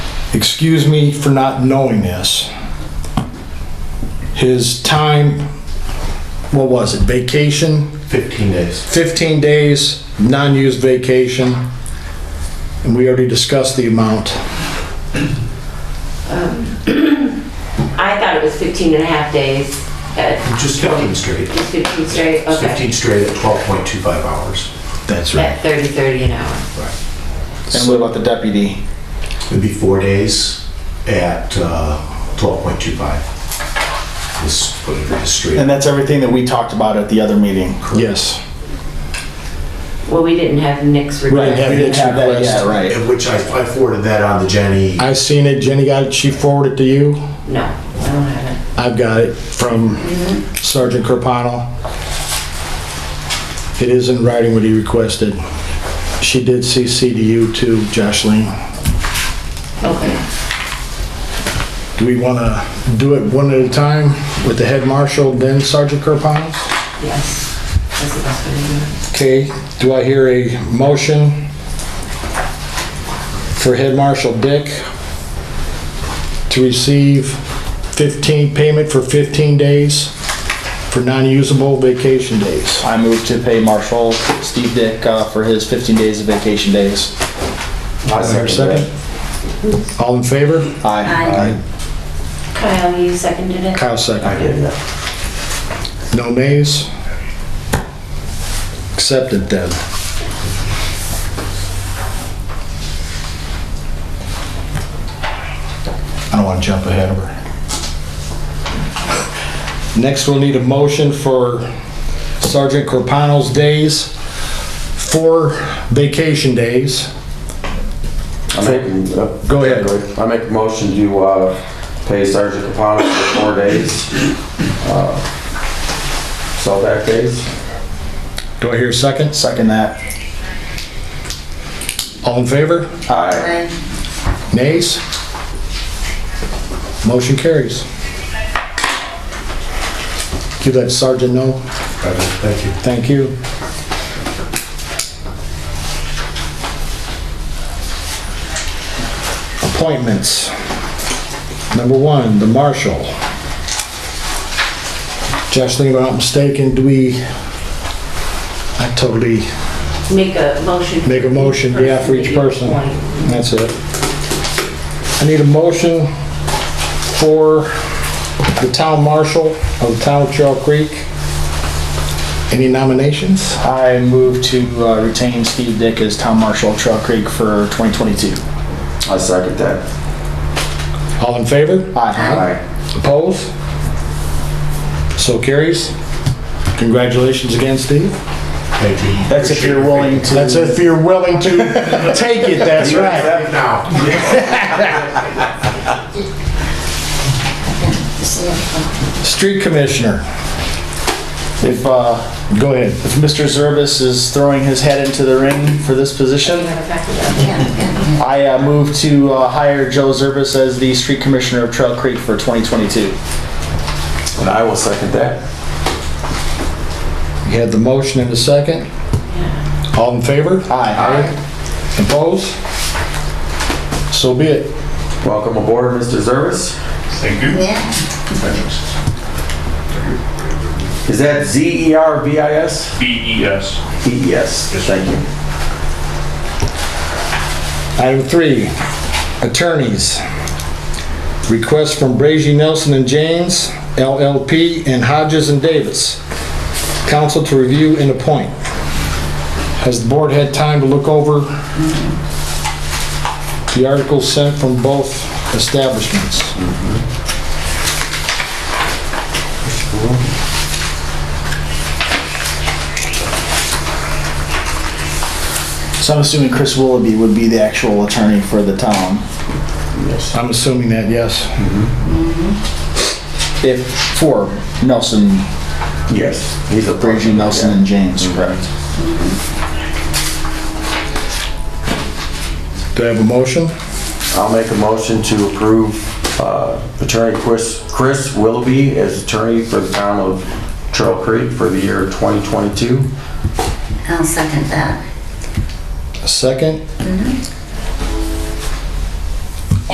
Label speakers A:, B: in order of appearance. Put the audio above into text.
A: excuse me for not knowing this. His time, what was it, vacation,
B: 15 days.
A: 15 days, non-used vacation, and we already discussed the amount.
C: I thought it was 15 and a half days, uh,
B: Just 15 straight.
C: just 15 straight,
B: It's
C: okay.
B: 15 straight at 12.25 hours.
A: That's
C: At 30, 30 an hour.
D: And what about the deputy?
B: It'd be four days at uh, 12.25. This, whatever it is straight.
D: And that's everything that we talked about at the other meeting.
A: Yes.
C: Well, we didn't have Nick's
A: Right, yeah,
C: request.
D: We didn't have that yet, right?
B: And Which I I forwarded that on to Jenny.
A: I seen it, Jenny got it, she forwarded it to you.
C: No, I don't have it.
A: I've got it from Sergeant Carpano. It is in writing what he requested. She did CC to you too, Jocelyn.
C: Okay.
A: Do we want to do it one at a time with the head marshal, then Sergeant Carpano?
C: Yes. That's the best way to do it.
A: Okay, do I hear a motion for Head Marshal Dick to receive 15, payment for 15 days for non-usable vacation days?
D: I move to pay Marshall Steve Dick uh, for his 15 days of vacation days.
A: Is there a second? All in favor?
D: Aye.
C: Kyle, you seconded it?
A: Kyle
B: I
A: second.
B: did that.
A: No nays? Accepted then. I don't want to jump ahead of her. Next, we'll need a motion for Sergeant Corpano's days, four vacation days.
E: I make, uh,
A: Go ahead.
E: I make a motion to, uh, pay Sergeant Capano for four days. uh, Cellback days.
A: Do I hear a second?
D: Second that.
A: All in favor?
E: Aye.
A: Nays? Motion carries. You let Sergeant know.
B: Perfect. Thank you.
A: Thank you. Appointments. Number one, the marshal. Jocelyn, if I'm not mistaken, do we, I totally,
C: Make a motion.
A: Make a motion, yeah, for each person.
C: that you appoint.
A: that's it. I need a motion for the town marshal of the town of Trail Creek. Any nominations?
D: I move to uh, retain Steve Dick as town marshal of Trail Creek for 2022.
E: I second that.
A: All in favor?
D: Aye.
E: Aye.
A: Opposed? So carries. Congratulations again, Steve.
B: Thank you.
D: That's if you're willing to.
A: That's if you're willing to take it, that's right.
B: Except now.
A: Street Commissioner,
D: If, uh,
A: go ahead.
D: if Mr. Zervis is throwing his head into the ring for this position, I uh, move to uh, hire Joe Zervis as the street commissioner of Trail Creek for 2022.
E: And I will second that.
A: You had the motion and the second. All in favor?
D: Aye.
A: Opposed? So be it.
E: Welcome aboard, Mr. Zervis.
B: Thank you.
E: Is that Z E R V I S?
F: BES.
E: E E S. Thank you.
A: Item three, attorneys. Request from Brazy Nelson and James, LLP, and Hodges and Davis. Council to review and appoint. Has the board had time to look over the articles sent from both establishments?
D: So I'm assuming Chris Willoughby would be the actual attorney for the town.
A: I'm assuming that, yes.
D: If, for Nelson,
E: Yes. He's a
D: Brady Nelson and James, correct?
A: Do I have a motion?
E: I'll make a motion to approve uh, Attorney Chris Chris Willoughby as attorney for the town of Trail Creek for the year 2022.
G: I'll second that.
A: A second?